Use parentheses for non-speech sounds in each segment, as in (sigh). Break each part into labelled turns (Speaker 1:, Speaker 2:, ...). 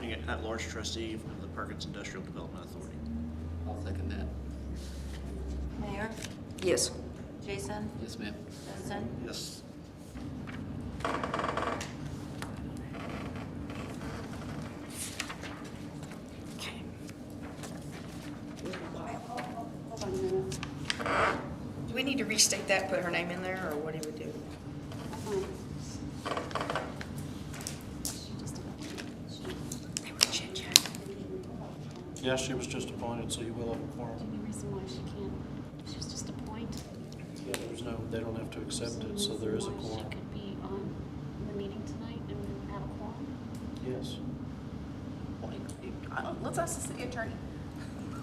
Speaker 1: being an at-large trustee of the Perkins Industrial Development Authority.
Speaker 2: I'll second that.
Speaker 3: Mayor,
Speaker 4: Yes.
Speaker 3: Jason,
Speaker 2: Yes, ma'am.
Speaker 3: Justin,
Speaker 1: Yes.
Speaker 5: Hold on a minute.
Speaker 4: Do we need to restate that, put her name in there, or what do we do?
Speaker 5: Uh-uh.
Speaker 4: They were chit-chatting.
Speaker 6: Yeah, she was just appointed, so you will have a quorum.
Speaker 5: Any reason why she can't, she was just a point.
Speaker 6: Yeah, there's no, they don't have to accept it, so there is a
Speaker 5: Why
Speaker 6: quorum.
Speaker 5: She could be on the meeting tonight and we would have a quorum.
Speaker 6: Yes.
Speaker 7: Uh, Let's ask the city attorney.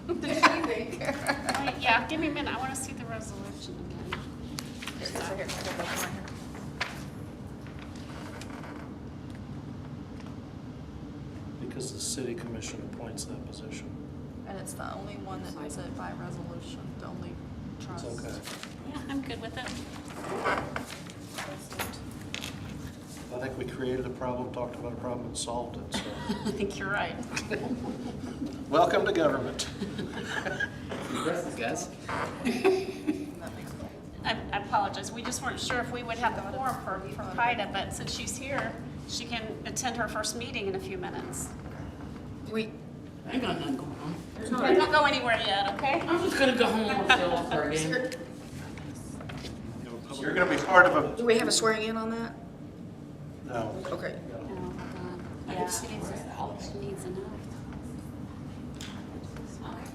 Speaker 7: What does she think?
Speaker 5: Wait, yeah, give me a minute, I wanna see the resolution again.
Speaker 7: Here, it's right here. I got that one right here.
Speaker 6: Because the city commission appoints that position.
Speaker 7: And it's the only one that does it by resolution, the only
Speaker 6: It's
Speaker 7: trust.
Speaker 6: okay.
Speaker 5: Yeah, I'm good with it.
Speaker 6: I think we created a problem, talked about a problem, and solved it, so.
Speaker 7: (laughs) I think you're right.
Speaker 6: (laughs) Welcome to government.
Speaker 2: Congrats, guys.
Speaker 5: I I apologize, we just weren't sure if we would have a quorum for, for Kaida, but since she's here, she can attend her first meeting in a few minutes.
Speaker 7: We,
Speaker 2: I got nothing going on.
Speaker 5: Don't go anywhere yet, okay?
Speaker 2: I'm just gonna go home and feel off for a game.
Speaker 6: You're gonna be part of
Speaker 4: Do we have a swearing in on that?
Speaker 6: a. No.
Speaker 4: Okay.
Speaker 5: Oh, hold on.
Speaker 3: Yeah.
Speaker 5: She needs, she needs a note.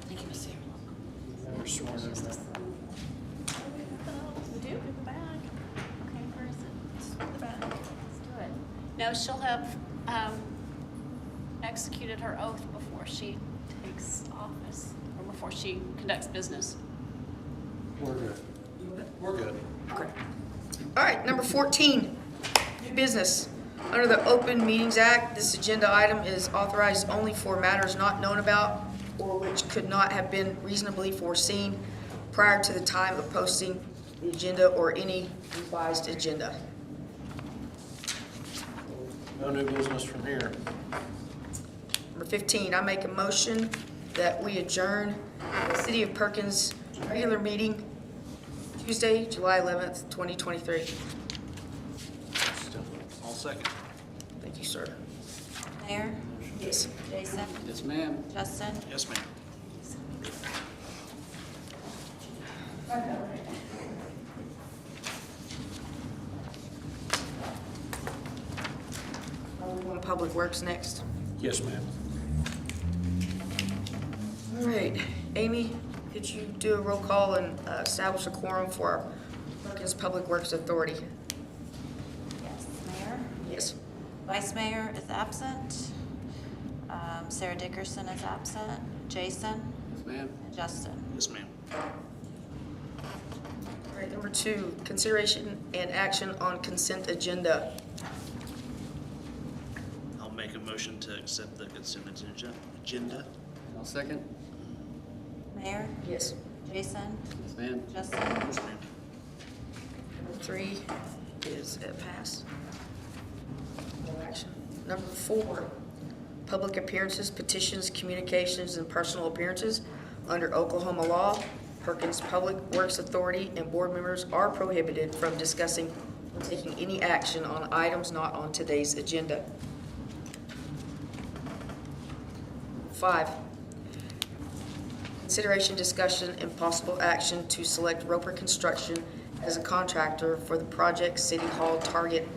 Speaker 2: Thank you, Miss Sarah.
Speaker 6: Never sworn in.
Speaker 7: we do, in the back,
Speaker 5: Okay, where is it?
Speaker 7: in the back.
Speaker 5: Let's do it. No, she'll have um, executed her oath before she takes office, or before she conducts business.
Speaker 6: We're good. We're good.
Speaker 4: All right, number 14, new business. Under the Open Meetings Act, this agenda item is authorized only for matters not known about or which could not have been reasonably foreseen prior to the time of posting the agenda or any revised agenda.
Speaker 6: No new business from here.
Speaker 4: Number 15, I make a motion that we adjourn the City of Perkins regular meeting Tuesday, July 11th, 2023.
Speaker 1: All second.
Speaker 4: Thank you, sir.
Speaker 3: Mayor,
Speaker 4: Yes.
Speaker 3: Jason,
Speaker 2: Yes, ma'am.
Speaker 3: Justin.
Speaker 1: Yes, ma'am.
Speaker 4: Public Works next.
Speaker 6: Yes, ma'am.
Speaker 4: All right, Amy, could you do a roll call and uh, establish a quorum for our Perkins Public Works Authority?
Speaker 3: Yes. Mayor,
Speaker 4: Yes.
Speaker 3: Vice Mayor is absent. Um, Sarah Dickerson is absent. Jason
Speaker 2: Yes, ma'am.
Speaker 3: and Justin.
Speaker 1: Yes, ma'am.
Speaker 4: All right, number two, consideration and action on consent agenda.
Speaker 1: I'll make a motion to accept the consent agenda- agenda.
Speaker 2: I'll second.
Speaker 3: Mayor,
Speaker 4: Yes.
Speaker 3: Jason,
Speaker 2: Yes, ma'am.
Speaker 3: Justin.
Speaker 1: Yes, ma'am.
Speaker 4: Number Three is a pass. No action. Number four, public appearances, petitions, communications, and personal appearances under Oklahoma law. Perkins Public Works Authority and board members are prohibited from discussing or taking any action on items not on today's agenda. Five, Consideration, discussion, and possible action to select Roper Construction as a contractor for the project City Hall Target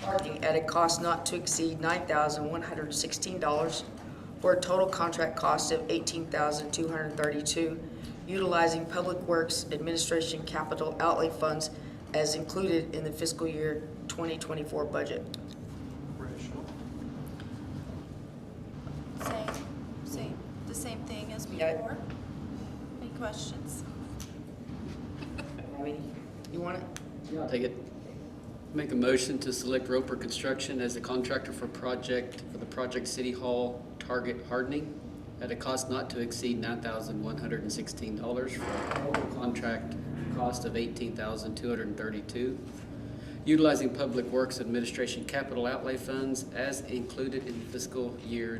Speaker 4: parking at a cost not to exceed $9,116 for a total contract cost of $18,232, utilizing Public Works Administration capital outlay funds as included in the fiscal year 2024 budget.
Speaker 6: Rachel?
Speaker 7: Same, same, the same thing as
Speaker 4: Yeah.
Speaker 7: before. Any questions?
Speaker 4: Have any? You want it?
Speaker 2: Yeah, I'll take it. Make a motion to select Roper Construction as the contractor for project, for the project City Hall Target Hardening at a cost not to exceed nine thousand one hundred and sixteen dollars for a total contract cost of eighteen thousand two hundred and thirty-two, utilizing Public Works Administration capital outlay funds as included in fiscal year